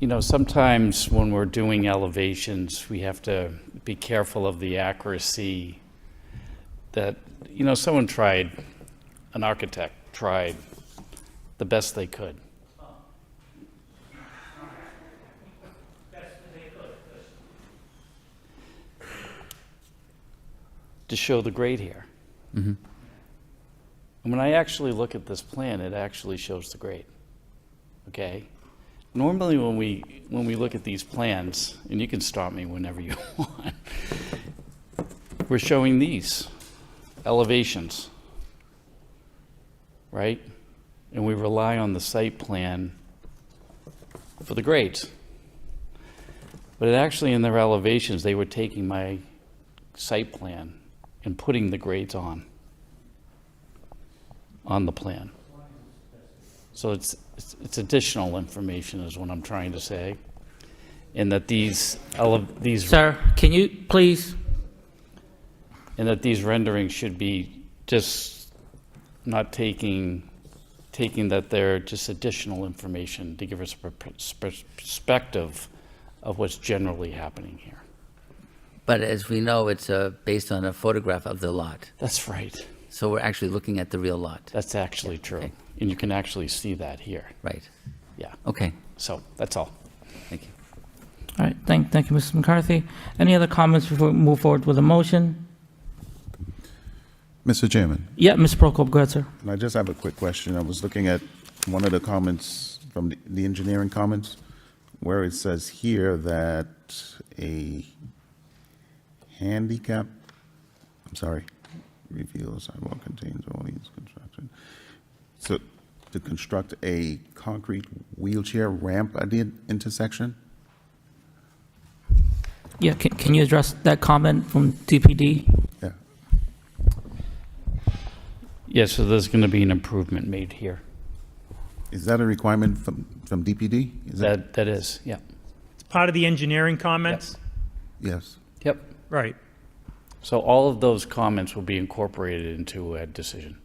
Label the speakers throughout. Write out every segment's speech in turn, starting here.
Speaker 1: You know, sometimes when we're doing elevations, we have to be careful of the accuracy that, you know, someone tried, an architect tried the best they could. To show the grade here. And when I actually look at this plan, it actually shows the grade, okay? Normally, when we, when we look at these plans, and you can stop me whenever you want, we're showing these elevations, right? And we rely on the site plan for the grades. But it actually, in their elevations, they were taking my site plan and putting the grades on, on the plan. So it's, it's- it's additional information is what I'm trying to say. And that these, ele- these,
Speaker 2: Sir, can you please,
Speaker 1: and that these renderings should be just not taking, taking that they're just additional information to give us a per- per- perspective of what's generally happening here.
Speaker 3: But as we know, it's uh, based on a photograph of the lot.
Speaker 1: That's right.
Speaker 3: So we're actually looking at the real lot.
Speaker 1: That's actually true.
Speaker 3: okay.
Speaker 1: And you can actually see that here.
Speaker 3: Right.
Speaker 1: Yeah.
Speaker 3: Okay.
Speaker 1: So that's all.
Speaker 3: Thank you.
Speaker 2: all right, thank, thank you, Mr. McCarthy. Any other comments before we move forward with a motion?
Speaker 4: Mr. Chairman,
Speaker 2: Yeah, Ms. Prokop, go ahead, sir.
Speaker 4: and I just have a quick question. I was looking at one of the comments from the- the engineering comments, where it says here that a handicap, I'm sorry, reveal sidewalk contains all these construction. So to construct a concrete wheelchair ramp at the intersection?
Speaker 2: Yeah, can, can you address that comment from DPD?
Speaker 4: Yeah.
Speaker 1: Yeah, so there's going to be an improvement made here.
Speaker 4: Is that a requirement from, from DPD? Is
Speaker 1: That, that is, yeah.
Speaker 5: Part of the engineering comments?
Speaker 4: Yes.
Speaker 1: Yep.
Speaker 5: Right.
Speaker 1: So all of those comments will be incorporated into a decision.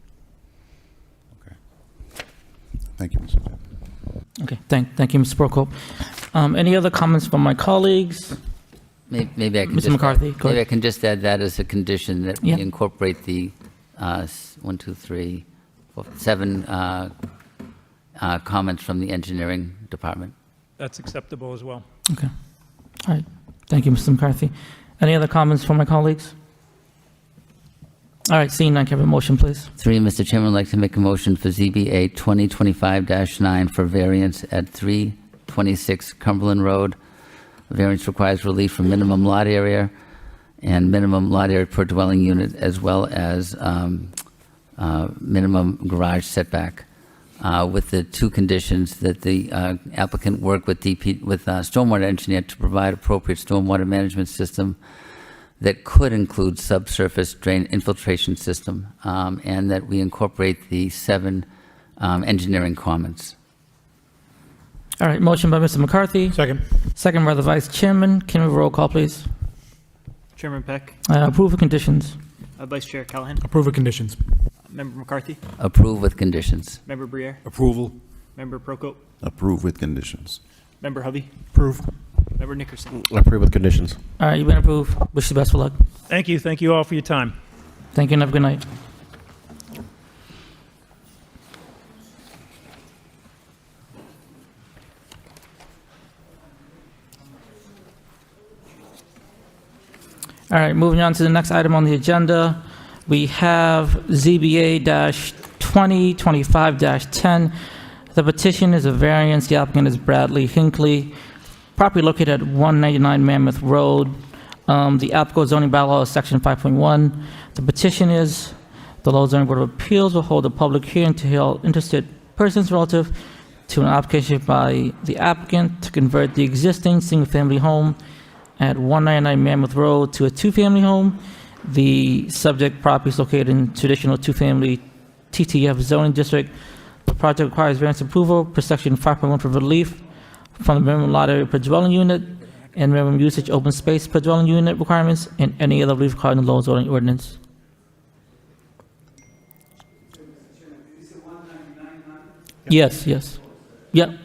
Speaker 4: Okay. Thank you, Mr. Chairman.
Speaker 2: Okay, thank, thank you, Ms. Prokop. Um, any other comments from my colleagues?
Speaker 3: May- Maybe I can
Speaker 2: Mr.
Speaker 3: just.
Speaker 2: McCarthy, go
Speaker 3: Maybe I
Speaker 2: ahead.
Speaker 3: can just add that as a condition that we
Speaker 2: Yeah.
Speaker 3: incorporate the uh, s- one, two, three, four, seven uh, uh, comments from the engineering department.
Speaker 5: That's acceptable as well.
Speaker 2: Okay, all right, thank you, Mr. McCarthy. Any other comments from my colleagues? All right, seeing none, can I have a motion, please?
Speaker 3: Three, Mr. Chairman, I'd like to make a motion for ZBA 2025-9 for variance at 326 Cumberland Road. Variance requires relief from minimum lot area and minimum lot area per dwelling unit, as well as um, uh, minimum garage setback, uh, with the two conditions that the uh, applicant work with DP, with uh, stormwater engineer to provide appropriate stormwater management system that could include subsurface drain infiltration system, um, and that we incorporate the seven um, engineering comments.
Speaker 2: All right, motion by Mr. McCarthy,
Speaker 5: Second.
Speaker 2: second by the Vice Chairman. Can we have a roll call, please?
Speaker 6: Chairman Peck,
Speaker 2: Uh, approval conditions.
Speaker 6: uh, Vice Chair Callahan,
Speaker 7: Approve of conditions.
Speaker 6: Member McCarthy,
Speaker 3: Approve with conditions.
Speaker 6: Member Briere,
Speaker 7: Approval.
Speaker 6: Member Prokop,
Speaker 4: Approve with conditions.
Speaker 6: Member Hovey,
Speaker 7: Approve.
Speaker 6: Member Nickerson.
Speaker 8: Approve with conditions.
Speaker 2: All right, you've been approved. Wish you the best of luck.
Speaker 5: Thank you, thank you all for your time.
Speaker 2: Thank you and have a good night. All right, moving on to the next item on the agenda. We have ZBA-2025-10. The petition is a variance. The applicant is Bradley Hinckley, property located at 199 Mammoth Road. Um, The applicable zoning bylaw is section 5.1. The petition is, the Lowell Zoning Board of Appeals will hold a public hearing to hear all interested persons relative to an application by the applicant to convert the existing single-family home at 199 Mammoth Road to a two-family home. The subject property is located in traditional two-family TTF zoning district. The project requires variance approval per section 5.1 for relief from the minimum lot area per dwelling unit and minimum usage open space per dwelling unit requirements and any other relief required in the Lowell zoning ordinance. Yes, yes. Yep,